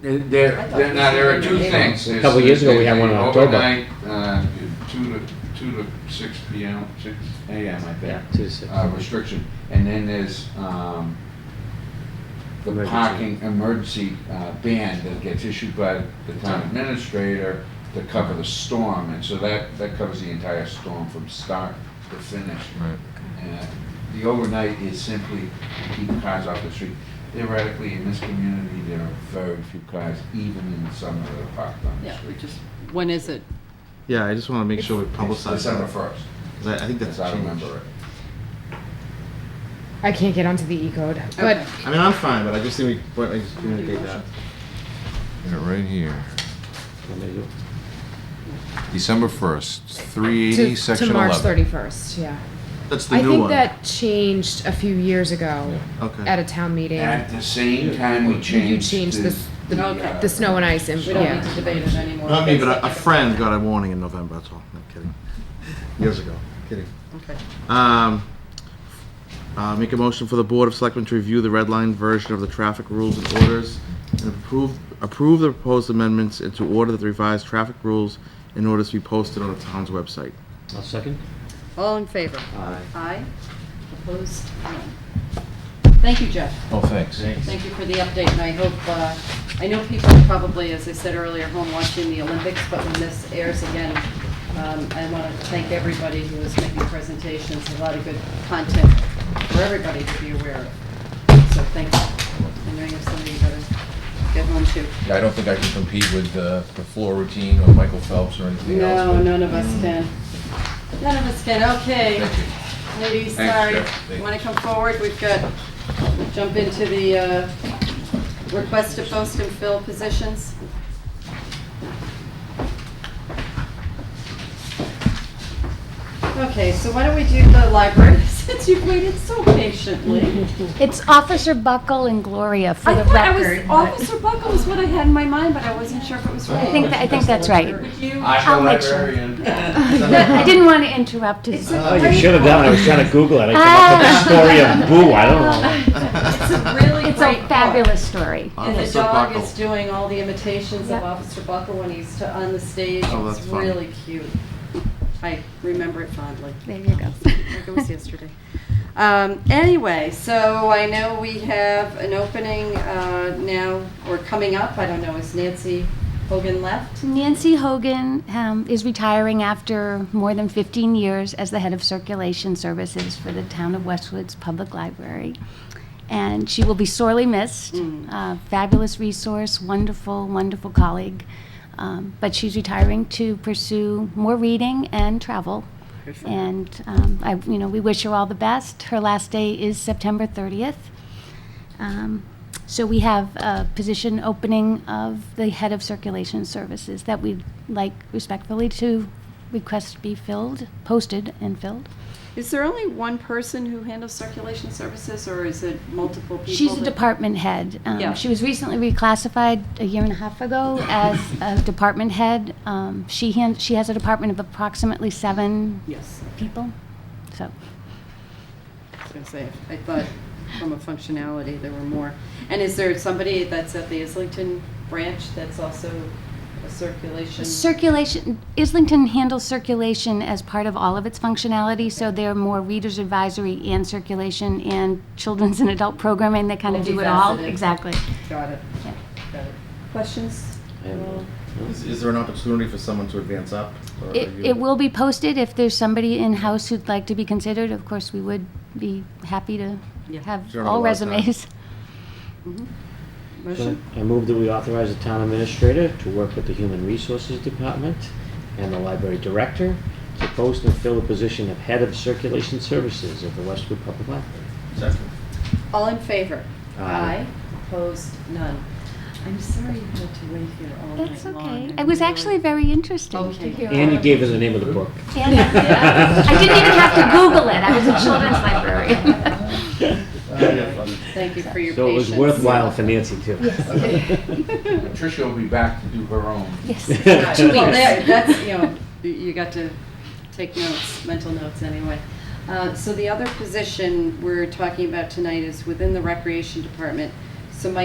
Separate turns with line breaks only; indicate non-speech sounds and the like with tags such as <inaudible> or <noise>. There, there, there- now, there are two things.
A couple years ago, we had one in October.
Overnight, uh, two to, two to six P M, six A M, I
Yeah,
think,
two to six.
uh, restriction. And then there's, um, the
Emergency.
parking emergency, uh, ban that gets issued by the town administrator to cover the storm. And so that, that covers the entire storm from start to finish.
Right.
Uh, The overnight is simply to keep cars off the street. Theoretically, in this community, there are very few cars, even in the summer, that are parked on the
Yeah, we
street.
just, when is it?
Yeah, I just want to make sure we
It's
publicize
December
that.
first,
'cause I I think that's
as I
changed.
remember it.
I can't get onto the E code, but
Okay.
I mean, I'm fine, but I just think we, I just communicate that. Yeah, right here.
Let me do-
December 1st,
to,
380,
to
section
March
11.
31st, yeah.
That's the
I
new
think
one.
that changed a few years ago
Yeah, okay.
at a town meeting.
At the same time, we
You
changed.
changed
the-
the, the,
Okay.
the snow and ice, and
We don't need to
yeah.
debate it anymore.
Not me, but a- a friend got a warning in November, that's all. No, kidding. <laughs> Years ago, kidding.
Okay.
Um, uh, make a motion for the Board of Selectmen to review the red line version of the traffic rules and orders and approve, approve the proposed amendments and to order the revised traffic rules in order to be posted on the town's website.
I'll second.
All in favor?
Aye.
Aye. Opposed? None. Thank you, Jeff.
Oh, thanks.
Thank you for the update, and I hope, uh, I know people are probably, as I said earlier, home watching the Olympics, but when this airs again, um, I want to thank everybody who is making presentations, a lot of good content for everybody to be aware of. So thanks. I know you have something you gotta get home to.
I don't think I can compete with uh, the floor routine or Michael Phelps or anything else.
No,
but-
none of us can. None of us can, okay.
Thank you.
Ladies,
Thanks,
sorry,
Jeff.
Thank you.
want to come forward, we've got, we'll jump into the uh, request to post and fill positions. Okay, so why don't we do the library, <laughs> since you've waited so
<laughs>
patiently.
It's Officer Buckle and Gloria for
I
the
thought I was,
record. but-
Officer Buckle was what I had in my mind, but I wasn't sure if it was right.
I think, that- I think
<laughs>
that's right.
Would you?
I'm the
I'll make sure. <laughs>
librarian.
I didn't want to interrupt his.
It's a
Oh, you
great
should have done. it. I was trying to Google it. I came up with the story of Boo. I don't know.
It's a really
<laughs> It's
great
a
book.
fabulous story.
And the
Officer
dog
Buckle.
is doing all the imitations of
Yep.
Officer Buckle when he's to- on the stage.
Oh,
It's
that's fun.
really cute. I remember it fondly.
There you go.
Like it <laughs> was yesterday. Um, Anyway, so I know we have an opening uh, now, or coming up, I don't know, is Nancy Hogan left?
Nancy Hogan um, is retiring after more than 15 years as the head of circulation services for the town of Westwood's Public Library. And she will be sorely missed.
Mm.
Uh, fabulous resource, wonderful, wonderful colleague. Um, but she's retiring to pursue more reading and travel. And um, I, you know, we wish her all the best. Her last day is September 30th. Um, So we have a position opening of the head of circulation services that we'd like respectfully to request be filled, posted and filled.
Is there only one person who handles circulation services, or is it multiple people?
She's a
that-
department head. Um,
Yeah.
She was recently reclassified a year and a half ago as a department head. Um, She han- she has a department of approximately seven
Yes.
people, so.
I was gonna say, I thought from a functionality, there were more. And is there somebody that's at the Islington branch that's also a circulation?
Circulation, Islington handles circulation as part of all of its functionality, so they're more readers advisory and circulation and children's and adult programming, they kind of do it all.
Multifaceted.
Exactly.
Got it,
Yeah.
got it. Questions?
I have none.
Is, is there an opportunity for someone to advance up? or are
It,
you-
it will be posted if there's somebody in-house who'd like to be considered, of course, we would be happy to
Yeah.
have
Sure, not a
all
lot of time.
resumes.
So
Motion?
I move that we authorize the town administrator to work with the human resources department and the library director to post and fill the position of head of circulation services at the Westwood Public Library.
Second.
All in favor?
Aye.
Opposed? None. I'm sorry you had to wait here all night
That's
long.
okay. It was
really-
actually very interesting
Okay.
to hear.
And you gave her the name of the book.
And I did. I didn't even have to Google it, I was a children's
<laughs>
librarian.
Oh,
Thank you for your patience.
So it was worthwhile for Nancy too. <laughs>
Patricia will be back to do her own.
<laughs> Yes. <laughs>
Right.
Two
Well,
weeks.
there- that's,
<laughs>
you know, you- you got to take notes, mental notes anyway. Uh, So the other position we're talking about tonight is within the Recreation Department. So Mike